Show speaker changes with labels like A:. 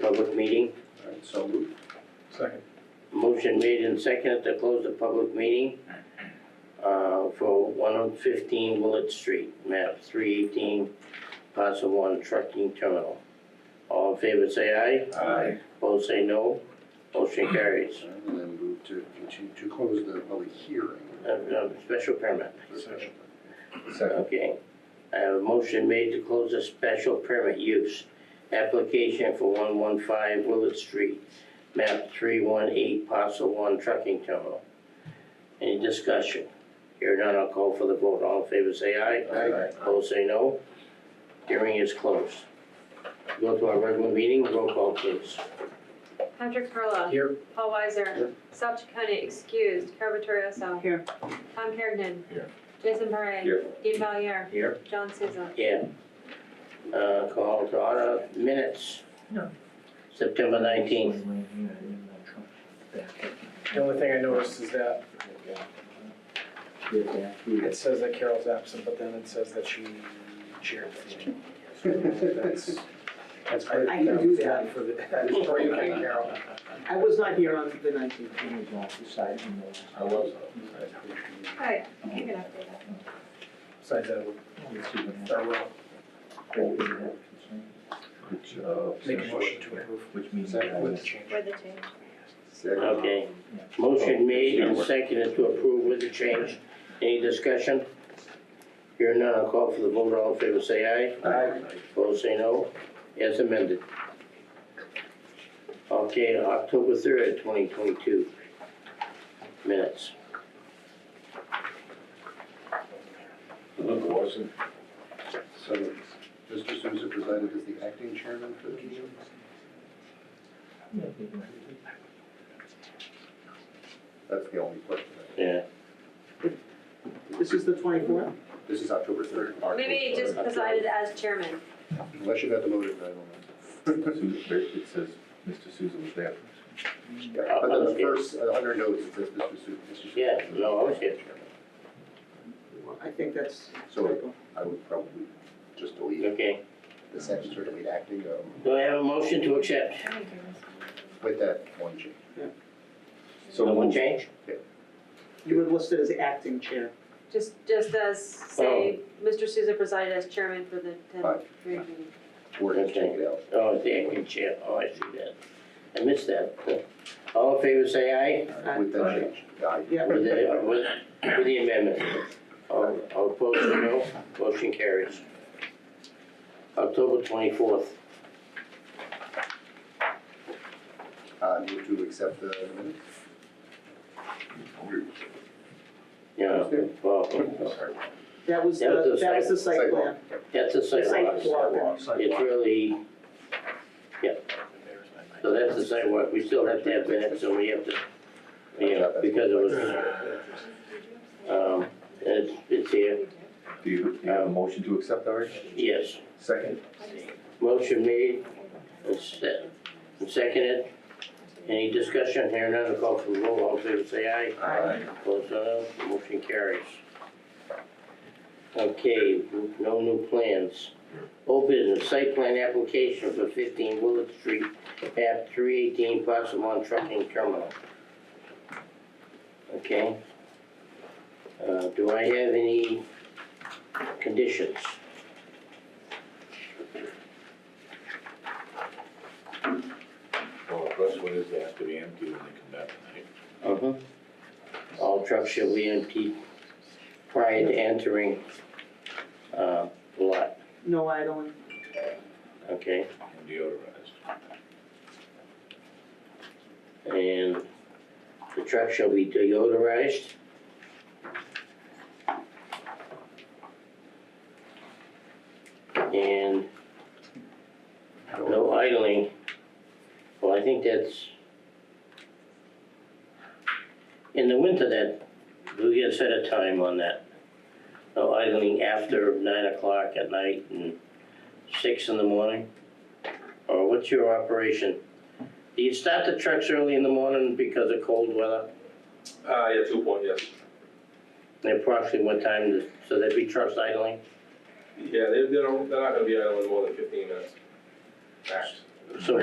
A: public meeting. All right, so moved.
B: Second.
A: Motion made and seconded to close the public meeting uh, for 115 Willard Street, map 318, parcel 1, trucking terminal. All in favor, say aye.
B: Aye.
A: Opposed, say no. Motion carries.
C: And then move to continue to close the public hearing.
A: Uh, uh, Special permit,
B: Second.
A: okay. I have a motion made to close the special permit use application for 115 Willard Street, map 318, parcel 1, trucking terminal. Any discussion? Here none, I'll call for the vote. All in favor, say aye.
C: Aye.
A: Opposed, say no. Hearing is closed. Go to our regular meeting, roll call please.
D: Patrick Perla.
A: Here.
D: Paul Weiser.
C: Here.
D: South Chacony excused. Carver Torioso.
E: Here.
D: Tom Hergen.
B: Here.
D: Jason Parre.
B: Here.
D: Dean Valier.
B: Here.
D: John Siza.
A: Yeah. Uh, call to order, minutes.
B: No.
A: September nineteenth.
B: The only thing I noticed is that it says that Carol's absent, but then it says that she chaired the meeting. So That's, that's.
E: I can do that.
B: For the, that is for you, Carol.
E: I was not here on the nineteenth.
B: I was.
D: Hi, you can update that.
B: Besides that, I will make a motion to approve
F: Which means.
B: with the change.
D: With the change.
C: Second.
A: Okay.
F: Oh,
A: Motion made and seconded to approve with the change. Any discussion? Hearing none, I'll call for the vote. All in favor, say aye.
B: Aye.
A: Opposed, say no. As amended. Okay, October third, twenty twenty-two. Minutes.
C: So, Mr. Souza presided as the acting chairman for the meeting? That's the only question.
A: Yeah.
E: This is the twenty-fourth?
C: This is October third.
D: Maybe he just presided as chairman.
C: Unless you got the motive, I don't know.
F: It says Mr. Souza was there.
C: Yeah, But then the first, uh, under notes, it says Mr. Souza. Mr. Souza.
A: Yeah, no, I was here.
E: I think that's.
C: So- I would probably just delete
A: Okay.
C: the section, sort of lead acting, um,
A: Do I have a motion to accept?
C: with that one change.
F: So
A: No one
F: moved.
A: change?
E: You were listed as acting chair.
D: Just, just as, say, Mr. Souza presided as chairman for the
C: Right.
D: tenth grade meeting.
C: Or just take it out.
A: Oh, it's the acting chair. Oh, I see that. I missed that. All in favor, say aye.
C: With that change. Aye.
E: Yeah.
A: With the, with, with the amendment. All, all opposed, no, motion carries. October twenty-fourth,
C: Uh, move to accept the minutes?
A: yeah, well,
E: That was the, that was the site plan.
A: that's a
E: The site
A: sidewalk.
E: plan.
A: It's really, yeah. So that's the sidewalk, we still have to have minutes, so we have to, you know, because it was, um, it's, it's here,
F: Do you, do you have a motion to accept already?
A: yes.
F: Second?
A: Motion made, and se- and seconded. Any discussion here, none, call for the roll, all in favor, say aye.
C: uh,
F: Aye.
A: Opposed, no, motion carries. Okay, no new plans. Old business, site plan application for fifteen Willard Street, map three eighteen, parcel one trucking terminal. Okay. Uh, do I have any conditions?
G: Well, the first one is they have to be empty when they come back tonight.
A: Uh-huh. All trucks shall be emptied prior to entering, uh, the lot,
E: No idling.
A: okay?
G: and deodorized.
A: And the truck shall be deodorized. And no idling. Well, I think that's. In the winter that, we get a set a time on that. No idling after nine o'clock at night and six in the morning. Or what's your operation? Do you start the trucks early in the morning because of cold weather?
H: Uh, yeah, two point, yes.
A: And approximately what time, does- so there'd be trucks idling?
H: Yeah, they, they're, they're not gonna be idling more than fifteen minutes, max.
A: So